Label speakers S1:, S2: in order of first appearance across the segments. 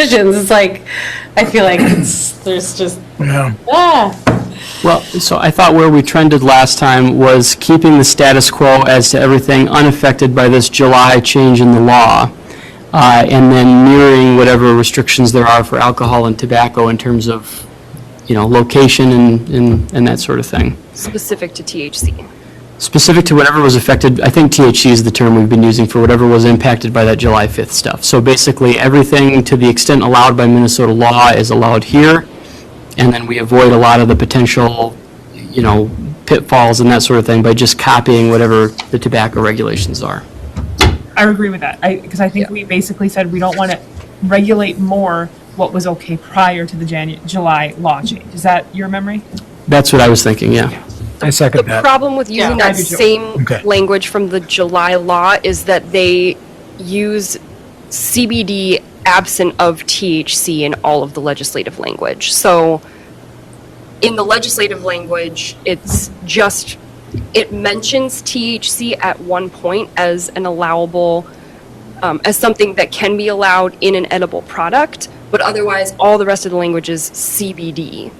S1: decisions, it's like, I feel like it's, there's just,
S2: Yeah.
S1: ah.
S3: Well, so I thought where we trended last time was keeping the status quo as to everything unaffected by this July change in the law, uh, and then mirroring whatever restrictions there are for alcohol and tobacco in terms of, you know, location and, and and that sort of thing.
S4: specific to THC.
S3: Specific to whatever was affected, I think THC is the term we've been using for whatever was impacted by that July 5th stuff. So basically, everything to the extent allowed by Minnesota law is allowed here, and then we avoid a lot of the potential, you know, pitfalls and that sort of thing by just copying whatever the tobacco regulations are.
S5: I agree with that. I, because I think we basically said we don't want to regulate more what was okay prior to the Janu- July law change. Is that your memory?
S3: That's what I was thinking, yeah.
S2: I
S4: The
S2: second that.
S4: problem with using
S5: Yeah. I
S4: that
S5: do too.
S4: same
S2: Okay.
S4: language from the July law is that they use CBD absent of THC in all of the legislative language. So in the legislative language, it's just, it mentions THC at one point as an allowable, um, as something that can be allowed in an edible product, but otherwise, all the rest of the language is CBD,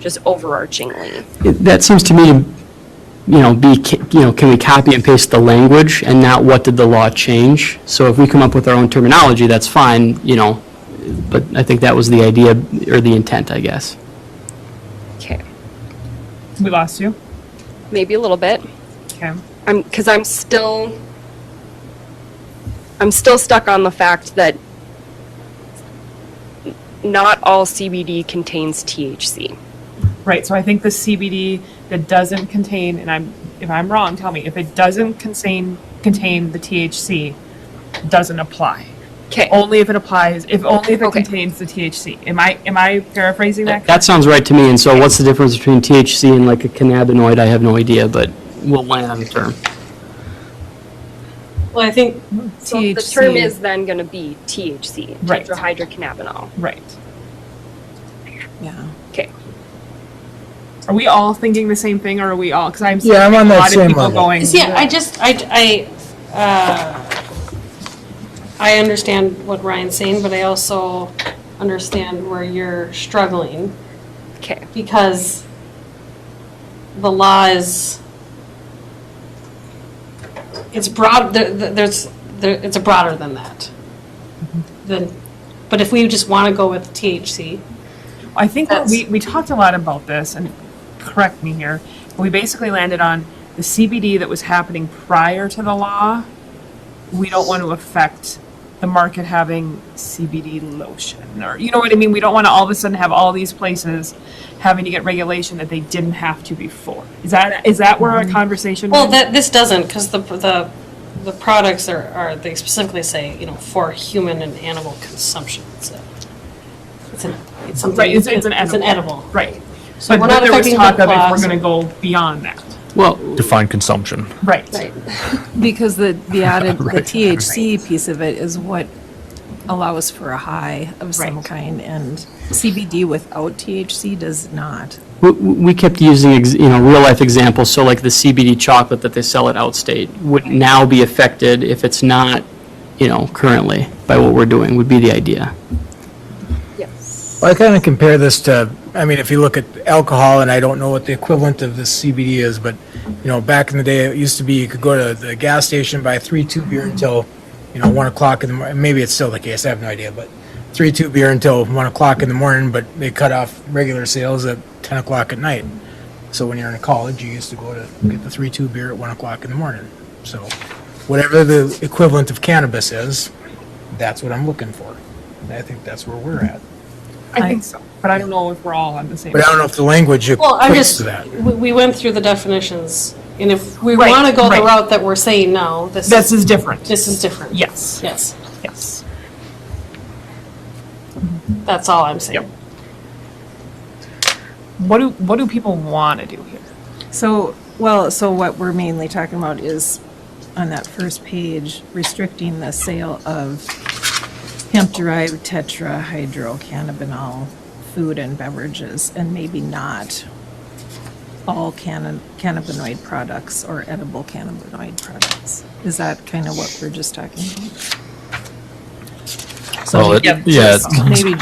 S4: just overarchingly.
S3: It- That seems to me, to, you know, be, ca- you know, can we copy and paste the language and not what did the law change? So if we come up with our own terminology, that's fine, you know, but I think that was the idea or the intent, I guess.
S4: Okay.
S5: We lost you.
S4: maybe a little bit.
S5: Okay.
S4: I'm because I'm still I'm still stuck on the fact that not all CBD contains THC.
S5: Right, so I think the CBD that doesn't contain, and I'm, if I'm wrong, tell me, if it doesn't contain, contain the THC, doesn't apply.
S4: Okay.
S5: Only if it applies, if only if it
S4: Okay.
S5: contains the THC. Am I, am I paraphrasing that?
S3: That sounds right to me, and so what's the difference between THC and like a cannabinoid? I have no idea, but we'll land on the term.
S1: Well, I think
S4: So the term is then going to be THC,
S5: Right.
S4: tetrahydrocannabinol.
S5: Right.
S6: Yeah.
S4: Okay.
S5: Are we all thinking the same thing, or are we all, because I'm seeing
S2: Yeah, I'm on
S5: a
S2: that
S5: lot of
S2: same
S5: people
S2: level.
S5: going.
S1: See, I just, I, I, uh, I understand what Ryan's saying, but I also understand where you're struggling
S4: Okay.
S1: because the law is, it's broad, there- there- there's, there- it's broader than that. Then, but if we just want to go with THC,
S5: I think what
S1: That's-
S5: we, we talked a lot about this, and correct me here, but we basically landed on the CBD that was happening prior to the law. We don't want to affect the market having CBD lotion, or, you know what I mean? We don't want to all of a sudden have all these places having to get regulation that they didn't have to before. Is that, is that where our conversation?
S1: Well,
S5: went?
S1: that, this doesn't, because the, the, the products are, are, they specifically say, you know, for human and animal consumption. It's a- It's an, it's something.
S5: Right, it's, it's an edible.
S1: It's an edible.
S5: Right.
S1: So
S5: But
S1: we're not
S5: there was
S1: affecting
S5: talk
S1: the
S5: of if we're
S1: class.
S5: gonna go beyond that.
S3: Well,
S7: define consumption.
S5: Right.
S6: Because the, the added, the THC piece of it is what allows for a high of some
S5: Right.
S6: kind, and CBD without THC does not.
S3: we- we kept using, ex- you know, real-life examples, so like the CBD chocolate that they sell at Outstate would now be affected if it's not, you know, currently by what we're doing, would be the idea.
S4: Yes.
S2: I kind of compare this to, I mean, if you look at alcohol, and I don't know what the equivalent of this CBD is, but, you know, back in the day, it used to be you could go to the gas station, buy three, two beer until, you know, one o'clock in the morning. Maybe it's still the case, I have no idea, but three, two beer until one o'clock in the morning, but they cut off regular sales at 10 o'clock at night. So when you're in college, you used to go to get the three, two beer at one o'clock in the morning. So whatever the equivalent of cannabis is, that's what I'm looking for. And I think that's where we're at.
S5: I think so, but I don't know if we're all on the same.
S2: But I don't know if the language
S1: Well, I'm
S2: equates
S1: just,
S2: to that.
S1: we, we went through the definitions, and if we
S5: Right,
S1: want to go the
S5: right.
S1: route that we're saying now, this,
S5: This
S1: is-
S5: is different.
S1: this is different.
S5: Yes,
S1: Yes,
S5: yes.
S1: that's all I'm saying.
S5: What do, what do people want to do here?
S6: So, well, so what we're mainly talking about is on that first page, restricting the sale of hemp-derived tetrahydrocannabinol food and beverages, and maybe not all canna- cannabinoid products or edible cannabinoid products. Is that kind of what we're just talking about?
S7: So
S6: Well, it-
S7: maybe
S6: yeah,
S7: just-
S6: it-
S7: Maybe